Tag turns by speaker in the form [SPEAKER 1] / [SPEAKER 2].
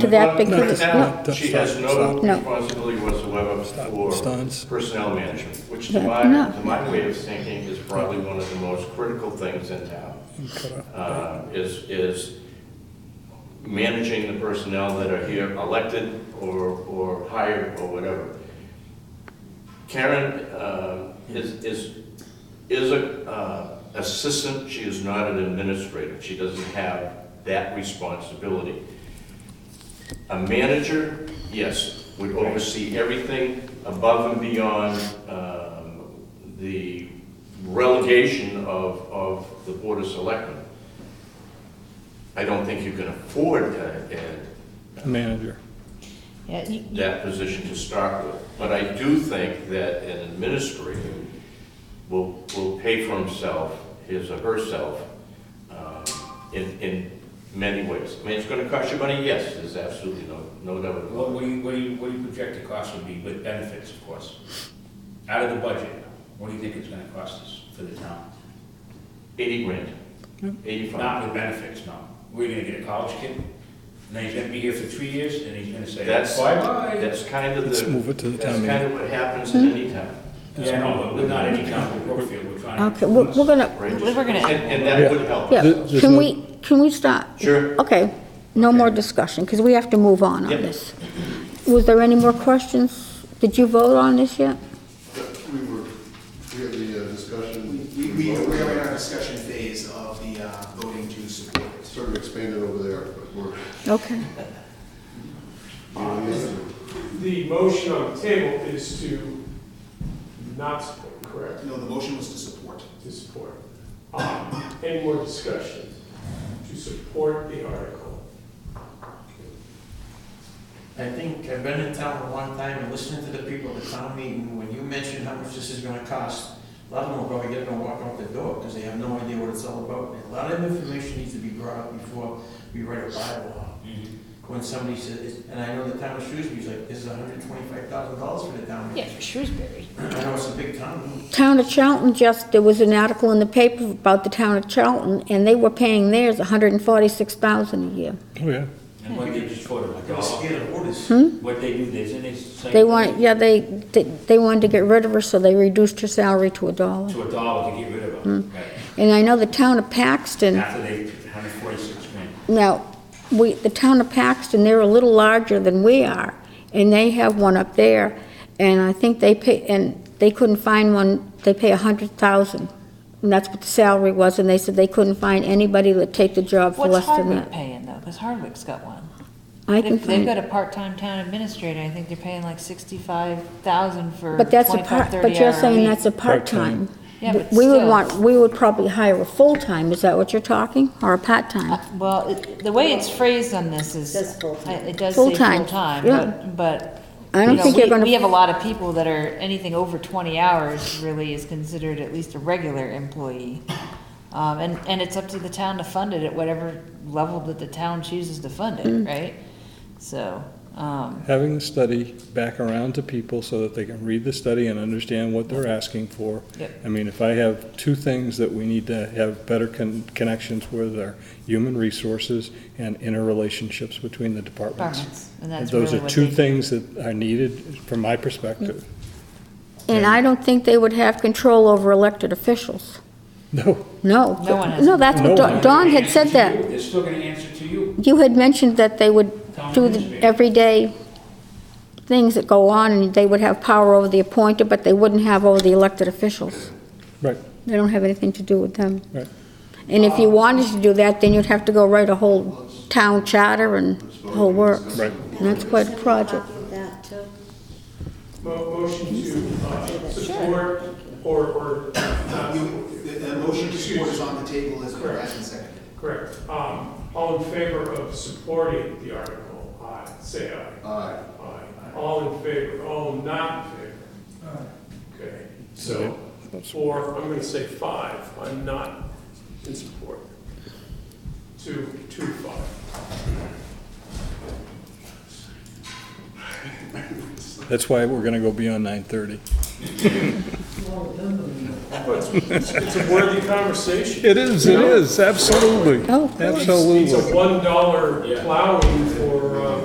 [SPEAKER 1] to that big,
[SPEAKER 2] Right
[SPEAKER 1] no,
[SPEAKER 2] now, she has no
[SPEAKER 1] No.
[SPEAKER 2] responsibility whatsoever
[SPEAKER 3] Steins.
[SPEAKER 2] for personnel management, which to
[SPEAKER 1] Yeah,
[SPEAKER 2] my,
[SPEAKER 1] no.
[SPEAKER 2] to my way of thinking is probably one of the most critical things in town. uh, Is, is managing the personnel that are here, elected or, or hired or whatever. Karen uh, is, is, is a uh, assistant, she is not an administrator, she doesn't have that responsibility. A manager, yes, would oversee everything above and beyond um, the relegation of, of the Board of Selectmen. I don't think you can afford uh,
[SPEAKER 3] manager.
[SPEAKER 4] Yeah, you-
[SPEAKER 2] that position to start with. But I do think that an administrator will, will pay for himself, his or herself, um, in, in many ways. I mean, it's gonna cost you money, yes, there's absolutely no, no doubt about it.
[SPEAKER 5] What, what do you, what do you, what do you project the cost would be with benefits, of course? Out of the budget, what do you think it's gonna cost us for the town?
[SPEAKER 2] 80 grand, 85.
[SPEAKER 5] Not with benefits, no. We're gonna get a college kid, and then he's gonna be here for three years, and he's gonna say,
[SPEAKER 2] That's-
[SPEAKER 5] bye-bye.
[SPEAKER 2] That's kind of the.
[SPEAKER 3] Let's move it to the town
[SPEAKER 2] That's kind of what happens in
[SPEAKER 4] Hmm?
[SPEAKER 2] any town.
[SPEAKER 5] Yeah, no, but we're not any town, we're Brookfield, we're trying to.
[SPEAKER 1] okay, we're we're gonna,
[SPEAKER 2] right?
[SPEAKER 4] We're gonna-
[SPEAKER 2] And, and that would help.
[SPEAKER 1] yeah,
[SPEAKER 3] Th- there's
[SPEAKER 1] can
[SPEAKER 3] no-
[SPEAKER 1] we, can we stop?
[SPEAKER 2] Sure.
[SPEAKER 1] Okay, no more discussion, because we have to move on on
[SPEAKER 2] Yep.
[SPEAKER 1] this. Was there any more questions? Did you vote on this yet?
[SPEAKER 6] We were, we had the uh, discussion.
[SPEAKER 7] We, we, we're in our discussion phase of the uh, voting to support.
[SPEAKER 6] Sort of expanded over there, but we're.
[SPEAKER 1] Okay,
[SPEAKER 7] Uh,
[SPEAKER 8] The motion on the table is to not support, correct,
[SPEAKER 7] No, the motion was to support.
[SPEAKER 8] to support. Um, Any more discussion to support the article?
[SPEAKER 9] I think, I've been in town a long time and listening to the people at the town meeting, when you mention how much this is gonna cost, a lot of them will probably get up and walk out the door, because they have no idea what it's all about. And A lot of information needs to be brought up before we write a bylaw. When somebody says, and I know the town of Shrewsbury's like, this is hundred and twenty-five thousand dollars for the town
[SPEAKER 4] yeah,
[SPEAKER 9] meeting.
[SPEAKER 4] for Shrewsbury.
[SPEAKER 9] I know it's a big town,
[SPEAKER 1] town of Charlton just, there was an article in the paper about the town of Charlton, and they were paying theirs hundred and forty-six thousand a year.
[SPEAKER 3] Oh, yeah.
[SPEAKER 2] And what they just voted,
[SPEAKER 5] Oh.
[SPEAKER 9] they're scared of orders.
[SPEAKER 2] what they do, they, they say.
[SPEAKER 1] They want, yeah, they, they they wanted to get rid of her, so they reduced her salary to a dollar.
[SPEAKER 5] To a dollar to get rid of them,
[SPEAKER 1] Hmm.
[SPEAKER 5] right?
[SPEAKER 1] And I know the town of Paxton,
[SPEAKER 5] After they, hundred forty-six grand.
[SPEAKER 1] now, we, the town of Paxton, they're a little larger than we are, and they have one up there, and I think they pay, and they couldn't find one, they pay a hundred thousand, and that's what the salary was, and they said they couldn't find anybody that'd take the job for
[SPEAKER 4] What's
[SPEAKER 1] less than
[SPEAKER 4] Hardwick
[SPEAKER 1] that.
[SPEAKER 4] paying though? Because Hardwick's got one.
[SPEAKER 1] I can
[SPEAKER 4] They've they've
[SPEAKER 1] find,
[SPEAKER 4] got a part-time town administrator. I think they're paying like sixty-five thousand for
[SPEAKER 1] but that's a
[SPEAKER 4] twenty-five,
[SPEAKER 1] part,
[SPEAKER 4] thirty hour
[SPEAKER 1] but you're saying
[SPEAKER 4] week.
[SPEAKER 1] that's a
[SPEAKER 3] Part-time.
[SPEAKER 1] part-time.
[SPEAKER 4] Yeah, but
[SPEAKER 1] We would
[SPEAKER 4] still.
[SPEAKER 1] want, we would probably hire a full-time, is that what you're talking, or a
[SPEAKER 4] Uh,
[SPEAKER 1] part-time?
[SPEAKER 4] Well, it- the way it's phrased on this is,
[SPEAKER 1] It says full-time.
[SPEAKER 4] I- it does say
[SPEAKER 1] Full-time,
[SPEAKER 4] full-time,
[SPEAKER 1] yeah.
[SPEAKER 4] but, but.
[SPEAKER 1] I don't
[SPEAKER 4] you know,
[SPEAKER 1] think you're
[SPEAKER 4] we-
[SPEAKER 1] gonna-
[SPEAKER 4] We have a lot of people that are, anything over twenty hours really is considered at least a regular employee. Um, and, and it's up to the town to fund it at whatever level that the town chooses to fund
[SPEAKER 1] Mm.
[SPEAKER 4] it, right? So, um,
[SPEAKER 3] Having the study back around to people so that they can read the study and understand what they're asking for.
[SPEAKER 4] Yep.
[SPEAKER 3] I mean, if I have two things that we need to have better con- connections with are human resources and interrelationships between the departments.
[SPEAKER 4] departments, and that's
[SPEAKER 3] Those
[SPEAKER 4] really
[SPEAKER 3] are
[SPEAKER 4] what
[SPEAKER 3] two
[SPEAKER 4] they do.
[SPEAKER 3] things that are needed from my perspective.
[SPEAKER 1] And I don't think they would have control over elected officials.
[SPEAKER 4] Mm-hmm.
[SPEAKER 3] No,
[SPEAKER 1] No.
[SPEAKER 4] No one has
[SPEAKER 1] No, that's
[SPEAKER 3] No
[SPEAKER 1] what,
[SPEAKER 3] one.
[SPEAKER 1] Don- Don had said
[SPEAKER 5] They're gonna answer to
[SPEAKER 1] that.
[SPEAKER 5] you. They're still gonna answer to you.
[SPEAKER 1] You had mentioned that they would
[SPEAKER 5] Town
[SPEAKER 1] do the
[SPEAKER 5] administrator.
[SPEAKER 1] everyday things that go on, and they would have power over the appointed, but they wouldn't have over the elected officials.
[SPEAKER 3] right,
[SPEAKER 1] They don't have anything to do with them.
[SPEAKER 3] right.
[SPEAKER 1] And if you wanted to do that, then you'd have to go write a whole town charter and whole works.
[SPEAKER 3] Right.
[SPEAKER 1] And that's quite a project.
[SPEAKER 8] Mo- Motion to uh, support or, or not support.
[SPEAKER 7] You- Uh, The, the motion to support is on the table as well as in second.
[SPEAKER 8] correct. Um, All in favor of supporting the article, aye, say aye.
[SPEAKER 6] Aye.
[SPEAKER 8] Aye. All in favor, all not in favor. Okay, so four, I'm gonna say five, I'm not in support. Two, two, five.
[SPEAKER 3] That's why we're gonna go beyond nine thirty.
[SPEAKER 8] It's a worthy conversation.
[SPEAKER 3] It is, it is, absolutely,
[SPEAKER 1] Oh, of course.
[SPEAKER 3] absolutely.
[SPEAKER 8] It's a one dollar plowing for, uh,